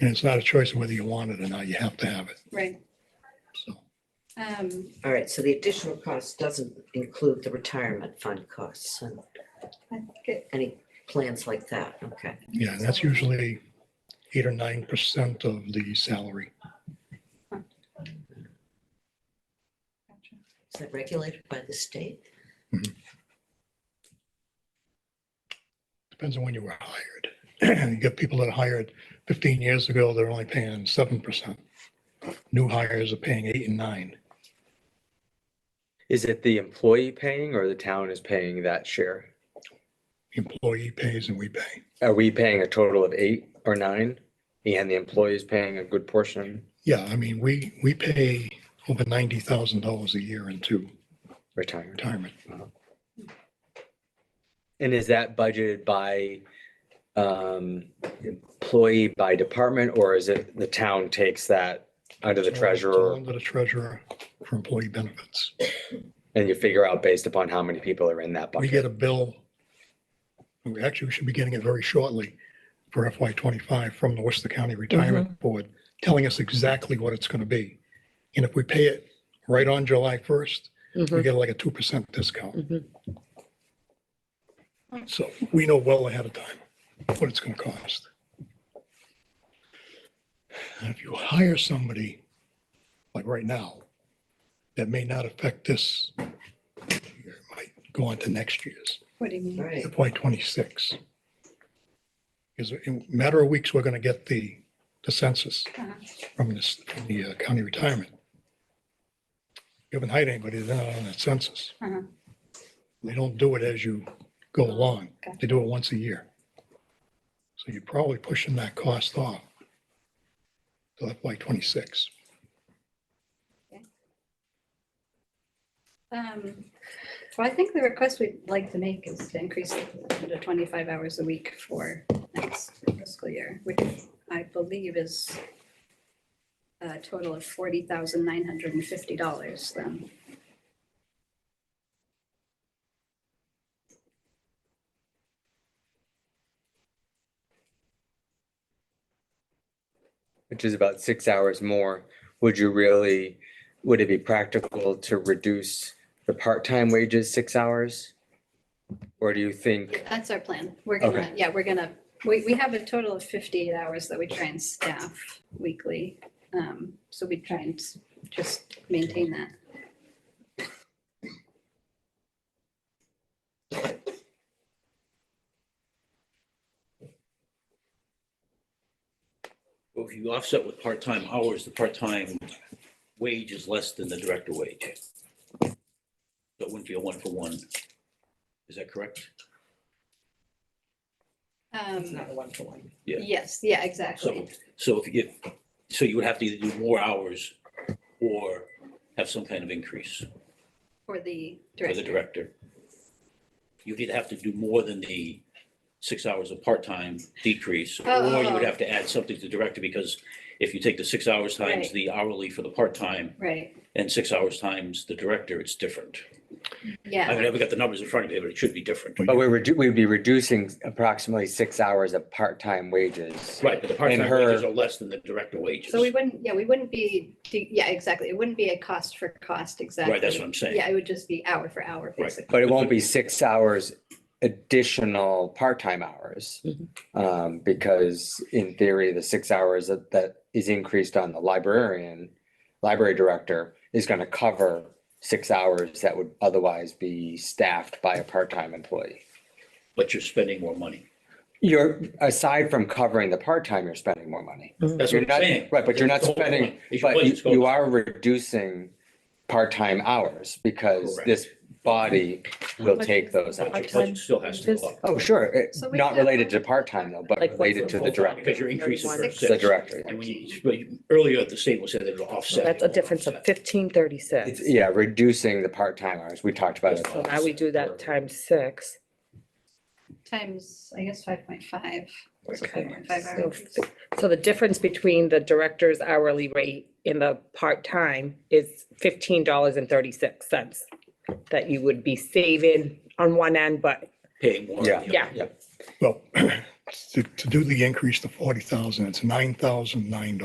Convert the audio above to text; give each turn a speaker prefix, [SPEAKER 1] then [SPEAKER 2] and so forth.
[SPEAKER 1] And it's not a choice of whether you want it or not. You have to have it.
[SPEAKER 2] right.
[SPEAKER 1] So
[SPEAKER 2] Um,
[SPEAKER 3] All right, so the additional cost doesn't include the retirement fund costs and
[SPEAKER 2] I think it-
[SPEAKER 3] any plans like that, okay?
[SPEAKER 1] Yeah, and that's usually eight or nine percent of the salary.
[SPEAKER 2] gotcha.
[SPEAKER 3] Is that regulated by the state?
[SPEAKER 1] Depends on when you were hired. You get people that are hired fifteen years ago, they're only paying seven percent. New hires are paying eight and nine.
[SPEAKER 4] Is it the employee paying or the town is paying that share?
[SPEAKER 1] The Employee pays and we pay.
[SPEAKER 4] Are we paying a total of eight or nine? And the employee is paying a good portion
[SPEAKER 1] Yeah, I mean, we, we pay over ninety thousand dollars a year into
[SPEAKER 4] retirement?
[SPEAKER 1] retirement.
[SPEAKER 4] And is that budgeted by um employee by department or is it the town takes that under
[SPEAKER 1] It's all- it's
[SPEAKER 4] the
[SPEAKER 1] all
[SPEAKER 4] treasurer
[SPEAKER 1] Under the treasurer for employee benefits.
[SPEAKER 4] and you figure out based upon how many people are in that
[SPEAKER 1] We get
[SPEAKER 4] bucket?
[SPEAKER 1] a bill. We actually should be getting it very shortly for FY twenty-five from the Worcester County Retirement Board, telling us exactly what it's going to be. And if we pay it right on July first, we get like a two percent discount.
[SPEAKER 3] Mhm.
[SPEAKER 1] So we know well ahead of time what it's going to cost. And if you hire somebody, like right now, that may not affect this year, it might go on to next year's.
[SPEAKER 2] What do you mean?
[SPEAKER 3] Right,
[SPEAKER 1] FY '26. Because in a matter of weeks, we're going to get the, the census
[SPEAKER 2] Uh-huh.
[SPEAKER 1] from this, from the uh, county retirement. You haven't hired anybody, they're not on that census.
[SPEAKER 2] Uh-huh.
[SPEAKER 1] They don't do it as you go along.
[SPEAKER 2] Okay.
[SPEAKER 1] They do it once a year. So you're probably pushing that cost off to FY '26.
[SPEAKER 2] Um, Well, I think the request we'd like to make is to increase it to 25 hours a week for next fiscal year, which I believe is a total of $40,950 then.
[SPEAKER 4] Which is about six hours more. Would you really, would it be practical to reduce the part-time wages six hours? Or do you think?
[SPEAKER 2] That's our plan. We're gonna, yeah, we're gonna, we, we have a total of 58 hours that we try and staff weekly. Um, So we try and s- just maintain that.
[SPEAKER 5] Well, If you offset with part-time hours, the part-time wage is less than the director wage. So it wouldn't be a one-for-one. Is that correct?
[SPEAKER 3] it's
[SPEAKER 2] Um,
[SPEAKER 3] not a one-to-one.
[SPEAKER 5] Yeah.
[SPEAKER 2] Yes, yeah,
[SPEAKER 5] So,
[SPEAKER 2] exactly.
[SPEAKER 5] so if you, so you would have to either do more hours or have some kind of increase
[SPEAKER 2] For the
[SPEAKER 5] for the
[SPEAKER 2] director.
[SPEAKER 5] director. You'd either have to do more than the six hours of part-time decrease, or you would
[SPEAKER 2] Oh.
[SPEAKER 5] have to add something to the director, because if you take the six hours times
[SPEAKER 2] Right.
[SPEAKER 5] the hourly for the part-time
[SPEAKER 2] Right,
[SPEAKER 5] and six hours times the director, it's different.
[SPEAKER 2] yeah.
[SPEAKER 5] I mean, I've got the numbers in front of me, but it should be different.
[SPEAKER 4] But we're, redu- we'd be reducing approximately six hours of part-time wages.
[SPEAKER 5] Right, but the part-time
[SPEAKER 4] And her-
[SPEAKER 5] wages are less than the director wages.
[SPEAKER 2] So we wouldn't, yeah, we wouldn't be, yeah, exactly. It wouldn't be a cost for cost, exactly.
[SPEAKER 5] Right, that's what I'm saying.
[SPEAKER 2] Yeah, it would just be hour for hour, basically.
[SPEAKER 4] But it won't be six hours additional part-time hours.
[SPEAKER 3] Mhm.
[SPEAKER 4] Um, because in theory, the six hours that, that is increased on the librarian, library director is gonna cover six hours that would otherwise be staffed by a part-time employee.
[SPEAKER 5] But you're spending more money.
[SPEAKER 4] You're, aside from covering the part-time, you're spending more money.
[SPEAKER 5] That's
[SPEAKER 4] You're
[SPEAKER 5] what I'm
[SPEAKER 4] not-
[SPEAKER 5] saying.
[SPEAKER 4] Right, but you're not
[SPEAKER 5] That's the whole
[SPEAKER 4] spending,
[SPEAKER 5] point, is your
[SPEAKER 4] but you-
[SPEAKER 5] budget's going
[SPEAKER 4] you
[SPEAKER 5] up.
[SPEAKER 4] are reducing part-time hours because
[SPEAKER 5] Correct.
[SPEAKER 4] this body will take those
[SPEAKER 5] But your
[SPEAKER 4] hours.
[SPEAKER 5] budget still has to go up.
[SPEAKER 4] Oh, sure, it-
[SPEAKER 2] So we
[SPEAKER 4] not
[SPEAKER 2] have-
[SPEAKER 4] related to part-time though, but
[SPEAKER 3] Like
[SPEAKER 4] related
[SPEAKER 3] what's
[SPEAKER 4] to
[SPEAKER 3] the
[SPEAKER 4] the director,
[SPEAKER 5] Because you're increasing for
[SPEAKER 3] Thirty-one.
[SPEAKER 5] six.
[SPEAKER 4] the director. yeah.
[SPEAKER 5] And when you, but you- earlier, the statement said that it'll offset.
[SPEAKER 6] That's a difference of fifteen thirty-six.
[SPEAKER 4] It's, yeah, reducing the part-time hours, we talked about it.
[SPEAKER 6] So now we do that times six.
[SPEAKER 2] Times, I guess, five point five.
[SPEAKER 6] So f- so the difference between the director's hourly rate and the part-time is fifteen dollars and thirty-six cents that you would be saving on one end, but
[SPEAKER 5] Paying more. on the
[SPEAKER 4] Yeah.
[SPEAKER 5] other.
[SPEAKER 6] yeah,
[SPEAKER 1] Well, to, to do the increase to forty thousand, it's nine thousand nine dollars.